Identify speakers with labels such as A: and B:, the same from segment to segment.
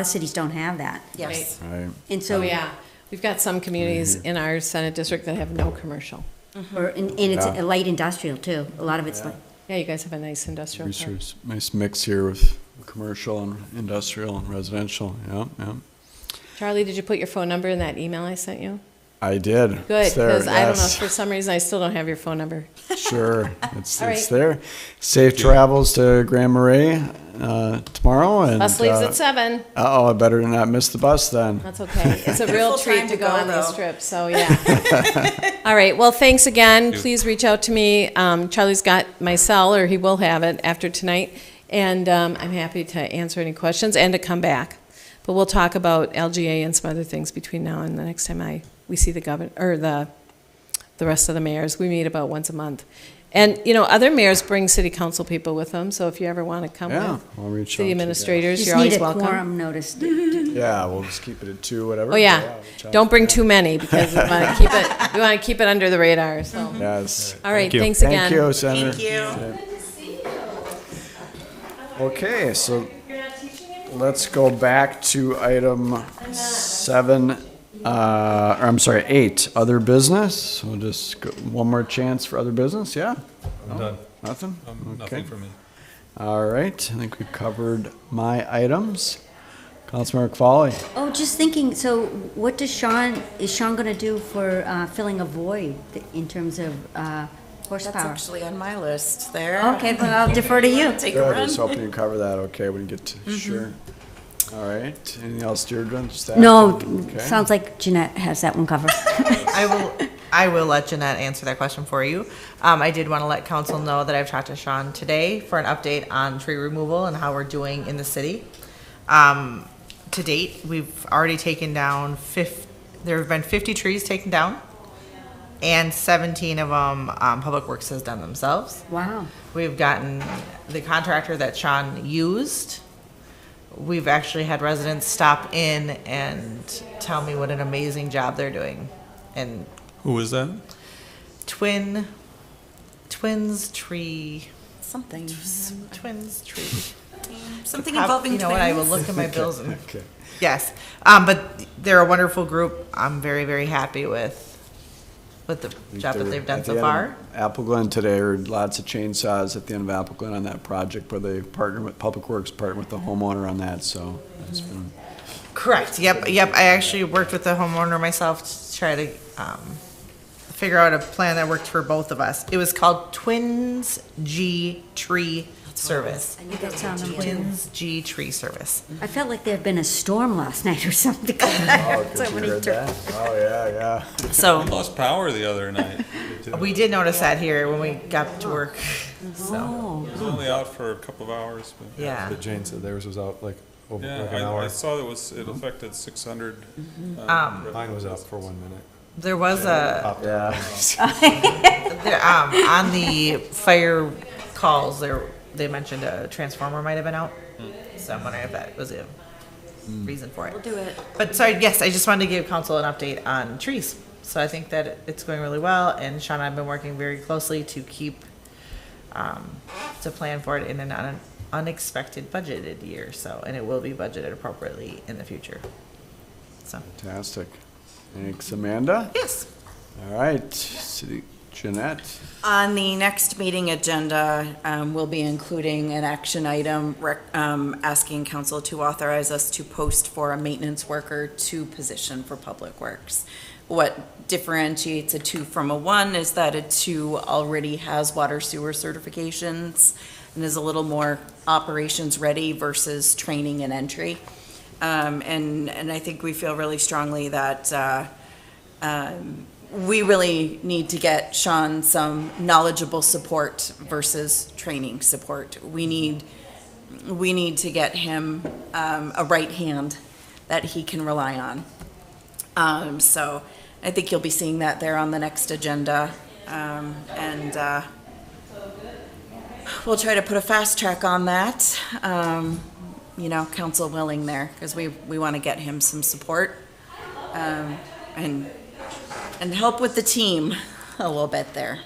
A: lot of cities don't have that.
B: Yes.
C: Right.
A: And
B: Oh,
A: so,
B: yeah. We've got some communities
C: Mm-hmm.
B: in our Senate district that have no commercial.
A: or, and, and it's a
C: Yeah.
A: light industrial too. A lot of it's like,
B: Yeah, you guys have a nice industrial
C: Nice
B: park.
C: nice mix here with commercial and industrial and residential. Yeah, yeah.
B: Charlie, did you put your phone number in that email I sent you?
C: I did.
B: Good,
C: It's there,
B: because I don't know,
C: yes.
B: for some reason, I still don't have your phone number.
C: Sure, it's,
B: All
C: it's
B: right.
C: there. Safe travels to Grand Marais uh, tomorrow and.
B: Bus leaves
C: uh,
B: at seven.
C: Uh-oh, I better not miss the bus then.
B: That's okay. It's a real
D: Full
B: treat
D: time
B: to
D: to
B: go
D: go,
B: on this
D: though.
B: trip, so yeah. All right, well, thanks again. Please reach out to me. Um, Charlie's got my cell, or he will have it after tonight, and um, I'm happy to answer any questions and to come back. But we'll talk about LGA and some other things between now and the next time I, we see the governor, or the, the rest of the mayors. We meet about once a month. And, you know, other mayors bring city council people with them, so if you ever want to come
C: Yeah,
B: with
C: I'll reach out to
B: city
C: you.
B: administrators,
A: just
B: you're
A: need
B: always
A: a
B: welcome.
A: quorum notice.
C: Yeah, we'll just keep it at two, whatever.
B: Oh yeah,
C: reach out.
B: don't bring too many because we want to keep it. We want to keep it under the radar. So,
C: Yes.
B: all right,
E: you.
B: thanks again.
C: Thank you, Senator.
D: Thank you.
C: Okay, so let's go back to item seven, uh, or I'm sorry, eight, other business. We'll just, go- one more chance for other business, yeah?
E: I'm done.
C: Nothing?
E: Um,
C: Okay.
E: Nothing for me.
C: All right, I think we covered my items. Councilmember Qualley.
A: Oh, just thinking, so what does Sean, is Sean gonna do for, uh, filling a void in terms of, uh,
D: That's
A: horsepower?
D: actually on my list there.
A: Okay, well, I'll defer to you.
D: Take
C: Good,
D: a
C: I
D: run. Mm-hmm.
C: was hoping you cover that, okay, when you get to, sure. All right, anything else, Deirdre, staff?
A: No,
C: Okay.
A: sounds like Jeanette has that one covered.
F: I will, I will let Jeanette answer that question for you. Um, I did want to let council know that I've talked to Sean today for an update on tree removal and how we're doing in the city. Um, to date, we've already taken down fif, there have been fifty trees taken down. And seventeen of them, um, Public Works has done themselves.
A: Wow.
F: We've gotten the contractor that Sean used. We've actually had residents stop in and tell me what an amazing job they're doing. And
E: Who was that?
F: twin, twins tree,
D: Something.
F: twins tree.
D: Something
F: Prob-
D: involving
F: You know what, I will look
D: twins.
F: at my bills and, yes. Um, but they're a wonderful group. I'm very, very happy with, with the job that
C: They're
F: they've done
C: at the
F: so
C: end of
F: far.
C: Apple Glen today, or lots of chainsaws at the end of Apple Glen on that project where they partner with, Public Works partnered with the homeowner on that, so. it's been-
F: Correct. Yep. Yep. I actually worked with the homeowner myself to try to um, figure out a plan that worked for both of us. It was called Twins G Tree Service.
A: I knew that sounded familiar.
F: Twins G Tree Service.
A: I felt like there had been a storm last night or something.
C: Oh, good you heard that. Oh, yeah, yeah.
D: Mm-hmm.
F: So
E: Lost power the other night. It did.
F: we did notice that here when we got to work. So
A: Oh,
E: It was only out for a couple of hours, but,
F: yeah.
G: But Jane said theirs was out like over
E: yeah,
G: like an
E: I, I
G: hour. Um,
E: saw that was, it affected six hundred. uh,
G: Mine was out for one minute.
F: There was a
G: Popped out.
C: Yeah.
F: there, um, on the fire calls there they mentioned a transformer might have been out. So I'm wondering if that was a reason for it.
D: Do it.
F: But sorry, yes, I just wanted to give council an update on trees. So I think that it's going really well, and Sean and I have been working very closely to keep, um, to plan for it in an un- unexpected budgeted year, so, and it will be budgeted appropriately in the future. So,
C: Fantastic. Thanks, Amanda.
F: yes.
C: All right, City, Jeanette.
D: On the next meeting agenda, um, we'll be including an action item rec- um, asking council to authorize us to post for a maintenance worker to position for Public Works. What differentiates a two from a one is that a two already has water sewer certifications and is a little more operations ready versus training and entry. Um, And, and I think we feel really strongly that uh, um, we really need to get Sean some knowledgeable support versus training support. We need, we need to get him um, a right hand that he can rely on. Um, So I think you'll be seeing that there on the next agenda. Um, And uh, we'll try to put a fast track on that, um, you know, council willing there, because we, we want to get him some support. um, And and help with the team a little bit there.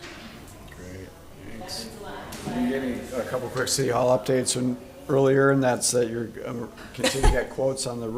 C: Give me a couple quick City Hall updates, and earlier, and that's that you're um, uh, continue to get quotes on the